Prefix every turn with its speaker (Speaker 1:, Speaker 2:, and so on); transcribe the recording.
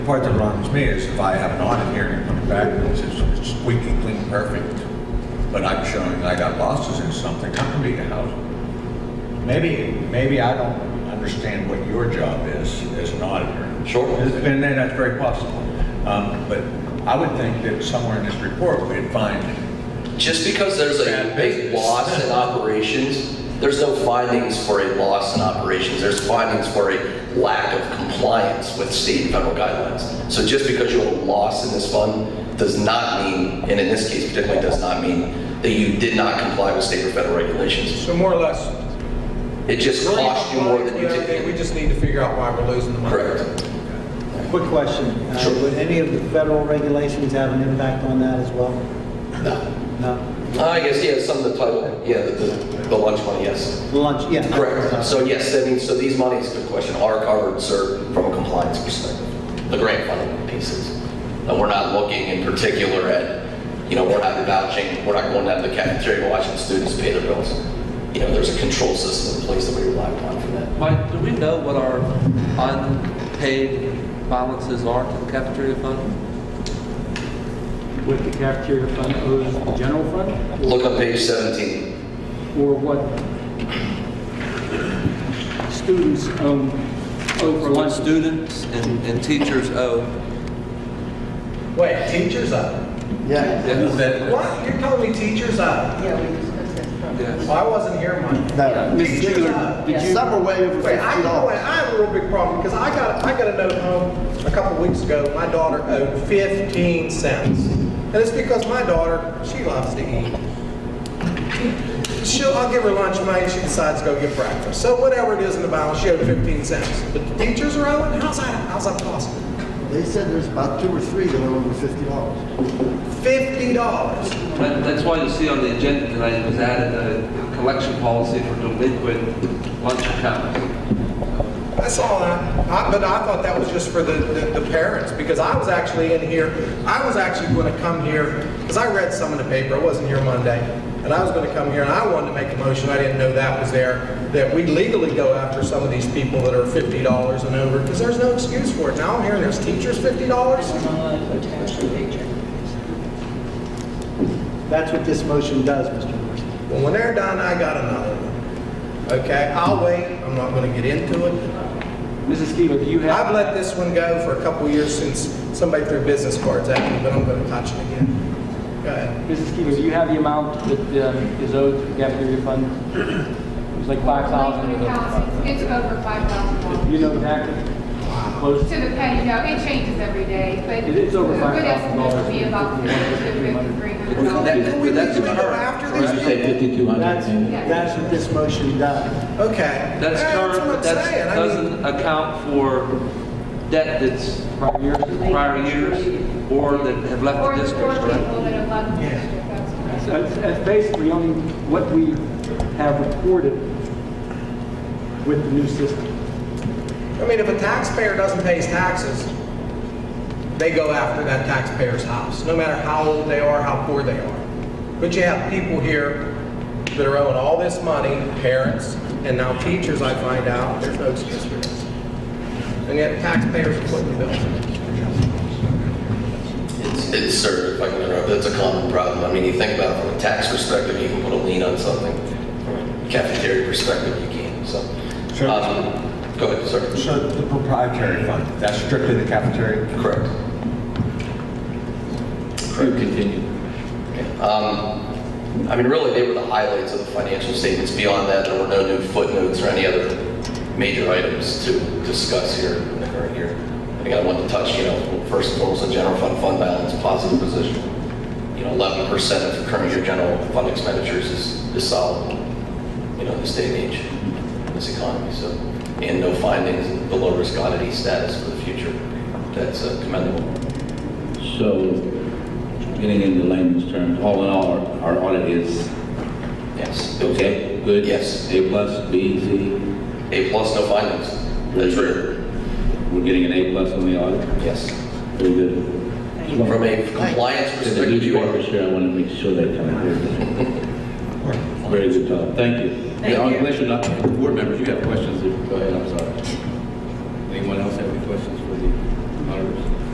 Speaker 1: The part that bothers me is if I have an audit here and you put it back and it says it's squeaky clean, perfect, but I'm showing I got losses in something, I'm gonna be a house. Maybe, maybe I don't understand what your job is as an auditor.
Speaker 2: Sure.
Speaker 1: And then that's very possible. Um, but I would think that somewhere in this report, we'd find,
Speaker 2: Just because there's a
Speaker 1: Bad
Speaker 2: big
Speaker 1: business.
Speaker 2: loss in operations, there's no findings for a loss in operations. There's findings for a lack of compliance with state and federal guidelines. So just because you have a loss in this fund does not mean, and in this case particularly, does not mean that you did not comply with state or federal regulations.
Speaker 3: So more or less.
Speaker 2: It just
Speaker 3: really
Speaker 2: cost you more than you
Speaker 3: compliant with everything, We
Speaker 2: did.
Speaker 3: just need to figure out why we're losing the money.
Speaker 2: Correct.
Speaker 4: Quick question. Uh,
Speaker 2: Sure.
Speaker 4: Would any of the federal regulations have an impact on that as well?
Speaker 2: No.
Speaker 4: No?
Speaker 2: I guess, yeah, Ah, some of the title, yeah, the- the the lunch money, yes.
Speaker 4: Lunch, yeah. Uh,
Speaker 2: Correct. So yes, I mean, so these monies, good question, are covered, sir, from a compliance perspective. The grant funding pieces. And we're not looking in particular at, you know, we're not vouching, we're not going down to the cafeteria and watching students pay their bills. You know, there's a control system in place that we rely upon for that.
Speaker 5: Mike, do we know what our unpaid balances are to the cafeteria fund?
Speaker 6: what the cafeteria fund owes the general fund,
Speaker 2: Look on page 17.
Speaker 6: or what students own, owe for
Speaker 5: What
Speaker 6: lunch.
Speaker 5: students and, and teachers owe?
Speaker 3: Wait, teachers up?
Speaker 4: Yeah.
Speaker 3: What? You're telling me teachers up?
Speaker 7: Yeah, we discussed that.
Speaker 5: Yes.
Speaker 3: Well, I wasn't here, Mike.
Speaker 4: No.
Speaker 6: Ms. Taylor, did you,
Speaker 4: Some are way over
Speaker 3: Wait, I,
Speaker 4: fifty
Speaker 3: you know what?
Speaker 4: dollars.
Speaker 3: I have a real big problem because I got, I got a note home a couple weeks ago. My daughter owed 15 cents. And it's because my daughter, she loves to eat. She'll, I'll give her lunch money, she decides to go get breakfast. So whatever it is in the balance, she owed 15 cents. But the teachers are owing? How's that, how's that possible?
Speaker 8: They said there's about two or three that are over fifty dollars.
Speaker 3: $50.
Speaker 5: That- That's why you see on the agenda tonight was added a collection policy for delinquent lunch accounts.
Speaker 3: I saw that, I, but I thought that was just for the, the, the parents, because I was actually in here, I was actually gonna come here, because I read some in the paper, I wasn't here Monday, and I was gonna come here, and I wanted to make a motion, I didn't know that was there, that we legally go after some of these people that are fifty dollars and over, because there's no excuse for it. Now I'm hearing there's teachers fifty dollars?
Speaker 4: That's what this motion does, Mr. Morrison.
Speaker 3: Well, when they're done, I got another one. Okay, I'll wait, I'm not gonna get into it.
Speaker 6: Mrs. Taylor, do you
Speaker 3: I've
Speaker 6: have,
Speaker 3: let this one go for a couple years since somebody threw business cards at me, but I'm gonna touch it again. Go ahead.
Speaker 6: Mrs. Taylor, do you have the amount that um, is owed to the cafeteria fund? It was like five thousand.
Speaker 7: It's over five thousand
Speaker 6: You
Speaker 7: dollars.
Speaker 6: know exactly? Close.
Speaker 7: To the penny, no, it changes every day, but.
Speaker 6: It is over
Speaker 7: a
Speaker 6: $5,000.
Speaker 7: Good estimate would be about fifty to three hundred dollars.
Speaker 3: Can we legally go after these people?
Speaker 4: That's,
Speaker 7: Yeah.
Speaker 4: that's what this motion does.
Speaker 3: Okay.
Speaker 5: That's
Speaker 3: Yeah,
Speaker 5: current,
Speaker 3: what I'm
Speaker 5: but that's,
Speaker 3: saying. I mean,
Speaker 5: doesn't account for debt that's
Speaker 6: Prior years?
Speaker 5: prior years or that have left
Speaker 7: Or
Speaker 5: the
Speaker 7: the four
Speaker 5: district, correct?
Speaker 7: people that have left the district, that's correct.
Speaker 6: That's, that's basically only what we have reported with the new system.
Speaker 3: I mean, if a taxpayer doesn't pay his taxes, they go after that taxpayer's house, no matter how old they are, how poor they are. But you have people here that are owing all this money, parents, and now teachers, I find out, there's no excuse for this. And yet taxpayers are putting the bill.
Speaker 2: It's, it's sir, if I can interrupt, that's a common problem. I mean, you think about it from a tax perspective, you can put a lien on something. From a Cafeteria perspective, you can't, so.
Speaker 1: Sure.
Speaker 2: Um, Go ahead, sir.
Speaker 1: so the proprietary fund, that's strictly the cafeteria?
Speaker 2: Correct. Correct. Continue. Um, I mean, really, they were the highlights of the financial statements. Beyond that, there were no new footnotes or any other major items to discuss here in the current year. I think I wanted to touch, you know, first and foremost, the general fund fund balance, positive position. You know, 11% of current year general fund expenditures is is solid, you know, in this day and age, in this economy, so. And no findings, in the low-risk oddity status for the future. That's uh, commendable.
Speaker 9: So, getting into layman's terms, all in all, our our audit is
Speaker 2: Yes.
Speaker 9: okay, good?
Speaker 2: Yes.
Speaker 9: A plus, B, C?
Speaker 2: A plus, no findings. That's true.
Speaker 9: We're getting an A plus on the audit?
Speaker 2: Yes.
Speaker 9: Very good.
Speaker 2: From a compliance
Speaker 9: To the
Speaker 2: perspective, you are.
Speaker 9: newspapers here, I want to make sure they come out here. Very good job, thank you.
Speaker 7: Thank you.
Speaker 9: Unless you're not, board members, you have questions, if- go ahead, I'm sorry. Anyone else